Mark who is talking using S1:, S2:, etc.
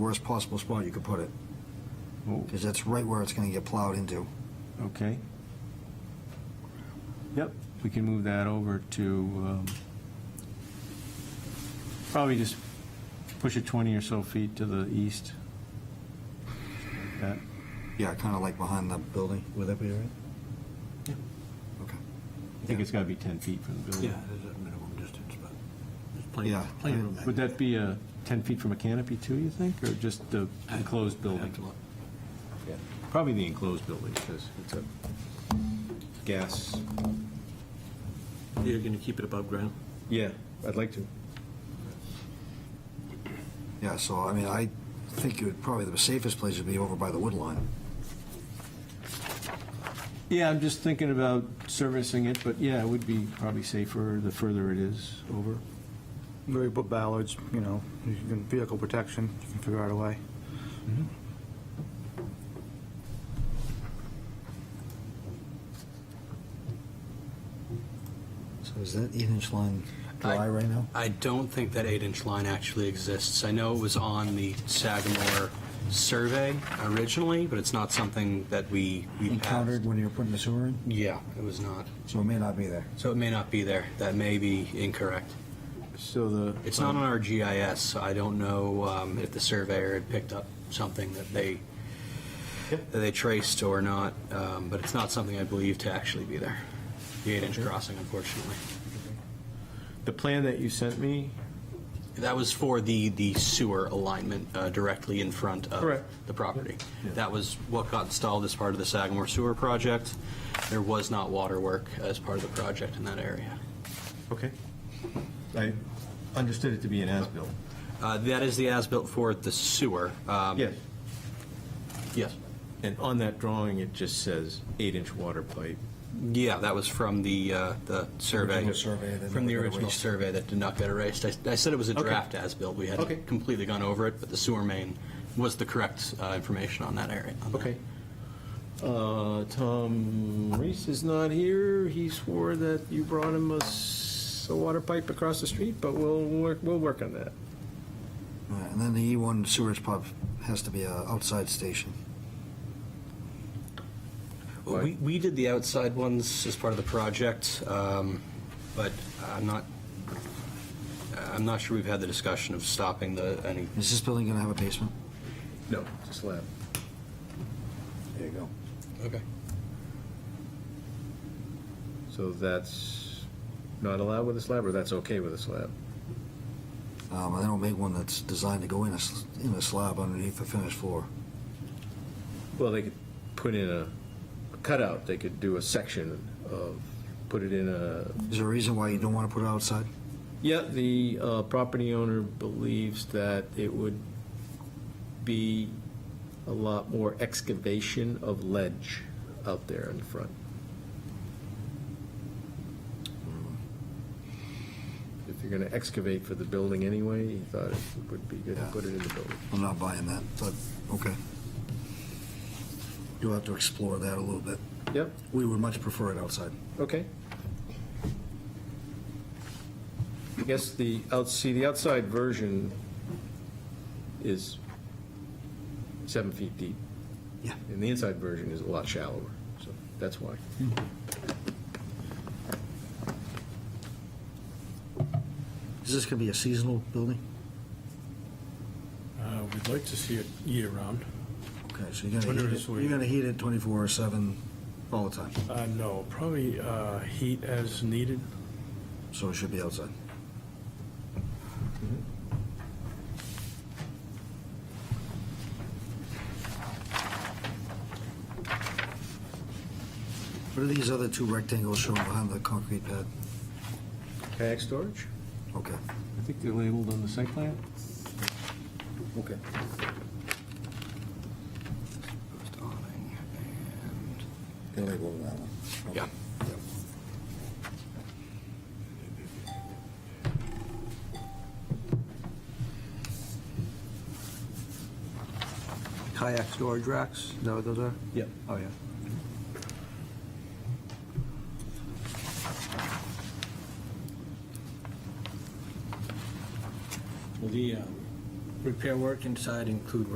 S1: worst possible spot you could put it, because that's right where it's gonna get plowed into.
S2: Oh, Okay. Yep, we can move that over to, um, probably just push it 20 or so feet to the east. That,
S1: Yeah, kinda like behind the building, would that be all right?
S3: Yeah.
S1: Okay.
S2: I think it's got to be 10 feet from the
S3: Yeah,
S2: building.
S3: it is at minimum distance, but there's plenty,
S1: Yeah.
S3: plenty of room.
S2: Would that be uh, 10 feet from a canopy too, you think, or just the enclosed
S3: I'd have
S2: building?
S3: to look.
S2: Probably the enclosed building, because it's a gas.
S3: You're going to keep it above ground?
S2: Yeah, I'd like to.
S1: Yeah, so, I mean, I think it would, probably the safest place would be over by the wood line.
S2: Yeah, I'm just thinking about servicing it, but yeah, it would be probably safer the further it is over.
S4: Where you put ballards, you know, you can, vehicle protection, you can figure out a way.
S1: So is that eight inch line dry right now?
S5: I don't think that eight-inch line actually exists. I know it was on the Sagamore survey originally, but it's not something that we, we passed.
S1: Encountered when you were putting the sewer in,
S5: Yeah, it was not.
S1: so it may not be there.
S5: So it may not be there. That may be incorrect.
S2: So the.
S5: It's not on our GIS, so I don't know um, if the surveyor had picked up something that they, that they traced or not, um, but it's not something I believe to actually be there. The eight-inch crossing, unfortunately.
S2: The plan that you sent me?
S5: That was for the, the sewer alignment uh, directly in front of
S2: Correct.
S5: the property.
S2: Yeah.
S5: That was what got installed as part of the Sagamore Sewer Project. There was not water work as part of the project in that area.
S2: Okay. I understood it to be an as-built.
S5: Uh, That is the as-built for the sewer. um,
S2: Yes.
S5: Yes.
S2: And on that drawing, it just says eight-inch water pipe.
S5: Yeah, that was from the, uh, the survey.
S1: Original survey that
S5: From the
S1: never got
S5: original
S1: erased.
S5: survey that did not get erased. I- I said it was a
S2: Okay.
S5: draft as-built. We
S2: Okay.
S5: hadn't completely gone over it, but the sewer main was the correct uh, information on that area. on that.
S2: Uh, Tom Reese is not here. He swore that you brought him a, s- a water pipe across the street, but we'll, work. we'll work on that.
S1: All right, And then the E1 sewage pump has to be a outside station.
S2: Right.
S5: We, we did the outside ones as part of the project, um, but I'm not, I'm not sure we've had the discussion of stopping the, any,
S1: Is this building gonna have a basement?
S2: No, it's a slab.
S1: There you go.
S5: okay,
S2: So that's not allowed with a slab, or that's okay with a slab?
S1: Um, and they don't make one that's designed to go in a, s- in a slab underneath the finished floor.
S2: Well, they could put in a a cutout, they could do a section of, put it in a.
S1: Is there a reason why you don't wanna put it outside?
S2: Yeah, the uh, property owner believes that it would be a lot more excavation of ledge out there in the front. If you're gonna excavate for the building anyway, he thought it would be good to put it in the building.
S1: I'm not buying that, but, okay. You'll have to explore that a little bit.
S2: Yep,
S1: We would much prefer it outside.
S2: Okay. I guess the, out- see, the outside version is seven feet deep,
S1: Yeah.
S2: and the inside version is a lot shallower, so that's why.
S1: Is this gonna be a seasonal building?
S3: Uh, We'd like to see it year-round.
S1: Okay, so you're gonna
S3: Wonder
S1: heat it,
S3: if we-
S1: you're gonna heat it twenty-four seven all the time,
S3: Uh, No, probably uh, heat as needed.
S1: so it should be outside. Mm-hmm. What are these other two rectangles showing behind the concrete pad?
S2: Kayak storage?
S1: Okay,
S2: I think they're labeled on the site plan.
S1: okay.
S5: Post awning and-
S1: They're labeled that one. Okay.
S5: yeah.
S4: Kayak storage racks, is that what those are?
S2: Yep.
S4: Oh, yeah.
S3: Well, the, um, Repair work inside include